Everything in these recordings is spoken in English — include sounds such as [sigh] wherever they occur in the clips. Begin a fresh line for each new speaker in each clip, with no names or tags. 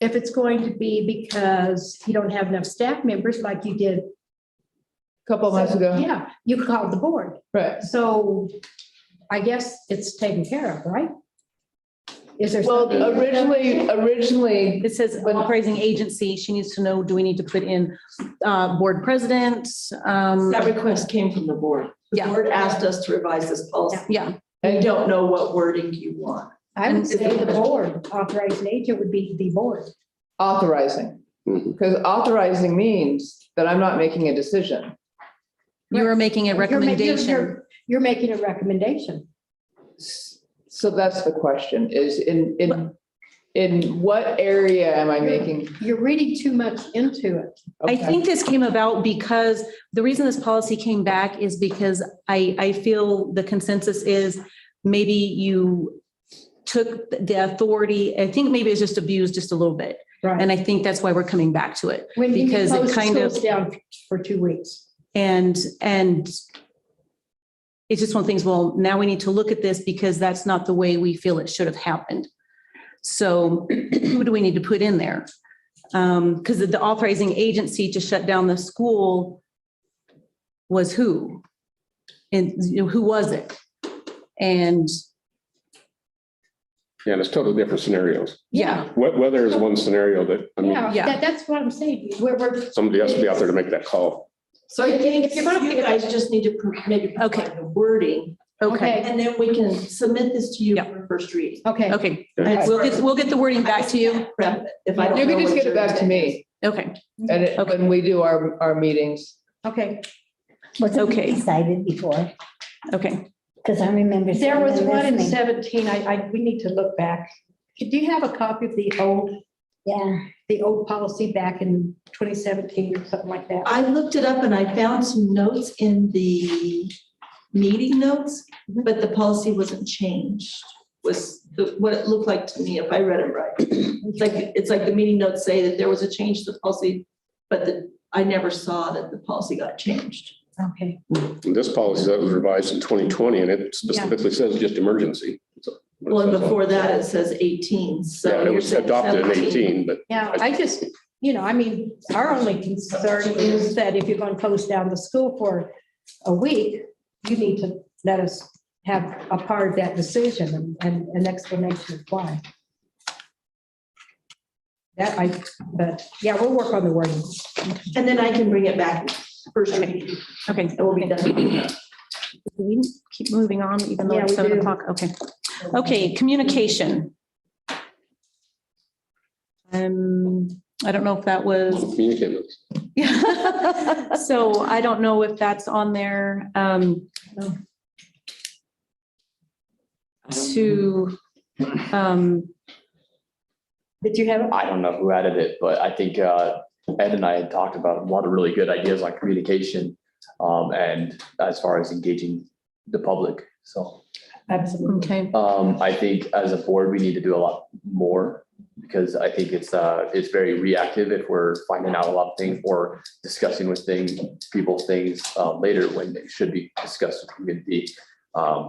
if it's going to be because you don't have enough staff members like you did.
Couple months ago,
Yeah, you called the board.
right.
So I guess it's taken care of, right? Is there?
Well,
something-
originally, originally,
It says when appraising agency, she needs to know, do we need to put in uh, board president? Um,
That request came from the board. The
Yeah.
board asked us to revise this policy.
Yeah,
I don't know what wording you want.
I would say the board, authorized agent would be the board.
authorizing.
Mhm.
Because authorizing means that I'm not making a decision.
you are making a
You're ma- you're-
recommendation.
you're- You're making a recommendation.
S- So that's the question is in, in, in what area am I making?
You're reading too much into it.
I
Okay.
think this came about because the reason this policy came back is because I, I feel the consensus is maybe you took the authority, I think maybe it's just abused just a little bit.
Right.
And I think that's why we're coming back to it.
When you
because it
close the
kind of-
schools down for two weeks.
And, and it's just one of the things, well, now we need to look at this because that's not the way we feel it should have happened. So [clears throat] who do we need to put in there? Um, because the authorizing agency to shut down the school was who? And you know, who was it? And
Yeah, and it's totally different scenarios.
yeah,
Wet weather is one scenario that, I mean,
Yeah,
yeah.
that, that's what I'm saying. We're, we're,
somebody has to be out there to make that call.
So I think
If you're gonna-
you guys just need to pro- maybe
Okay.
provide the wording,
okay,
okay,
and then we can submit this to you
Yeah.
for first reading.
okay.
okay.
Okay.
We'll get, we'll get the wording back to you.
If I don't
You
know
can just
what
get it
your-
back to me
Okay,
and it-
Okay.
when we do our, our meetings.
Okay,
Wasn't
Okay.
it decided before?
okay.
Because I remember.
there was
sitting there
one in
listening.
seventeen, I, I, we need to look back. Do you have a copy of the old,
Yeah,
the old policy back in twenty seventeen or something like that?
I looked it up and I found some notes in the meeting notes, but the policy wasn't changed. Was the- what it looked like to me if I read it right. It's like, it's like the meeting notes say that there was a change to the policy, but the- I never saw that the policy got changed.
Okay,
And This policy that was revised in twenty twenty and it specifically says just emergency. So-
Well, and before that, it says eighteen, so.
Yeah, and it
you're
was
saying
adopted in
17.
eighteen, but
yeah, I just, you know, I mean, our only concern is that if you're gonna close down the school for a week, you need to let us have a part of that decision and- and an explanation of why. That I, but, yeah, we'll work on the wording.
And then I can bring it back first reading,
Okay.
and we'll be done.
Do we keep moving on even though
Yeah,
it's
we
seven
do.
o'clock? Okay. Okay, communication. Um, I don't know if that was, [laughs]
communicate with.
yeah. So I don't know if that's on there. Um, to, um,
Did you have? it?
I don't know who added it, but I think uh, Ed and I had talked about a lot of really good ideas on communication um, and as far as engaging the public. So
Absolutely.
okay,
um, I think as a board, we need to do a lot more because I think it's uh, it's very reactive if we're finding out a lot of things or discussing with things, people things uh, later when it should be discussed with community. Um,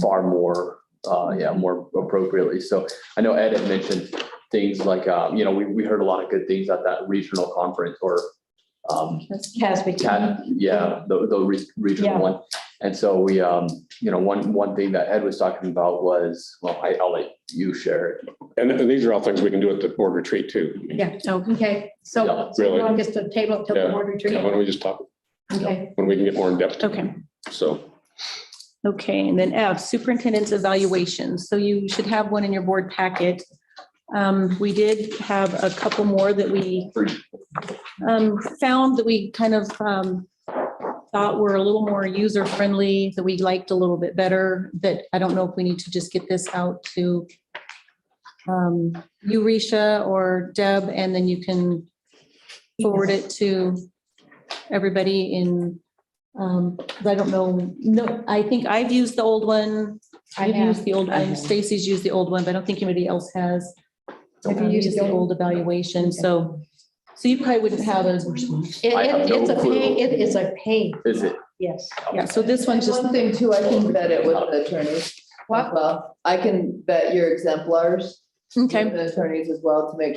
far more, uh, yeah, more appropriately. So I know Ed had mentioned things like, um, you know, we, we heard a lot of good things at that regional conference or, um,
Casby.
Cat, yeah, the, the re-
Yeah.
regional one. And so we, um, you know, one, one thing that Ed was talking about was, well, I, I'll let you share it.
And and these are all things we can do at the board retreat too.
Yeah.
okay.
Okay,
Yeah,
so so
really.
we'll just to table it till the
Yeah.
board retreat.
Why don't we just talk,
Okay,
when we can get more in depth,
Okay,
so.
okay. And then F, superintendent's evaluation. So you should have one in your board packet. Um, we did have a couple more that we um, found that we kind of, um, thought were a little more user friendly, that we liked a little bit better, that I don't know if we need to just get this out to um, you, Risha, or Deb, and then you can forward it to everybody in, um, I don't know, no, I think I've used the old one.
I
I've used
have.
the old
I
one.
have.
Stacy's used the old one, but I don't think anybody else has.
Have you
Um,
used
just
the
the
old-
old evaluation, so, so you probably wouldn't have a,
It-
I have
it- It's a
no clue.
pain, it is a pain,
Is it?
yes.
yeah, so this one's just,
One thing too, I can vet it with the attorneys.
What?
Well, I can vet your exemplars.
okay.
with The attorneys as well to make sure.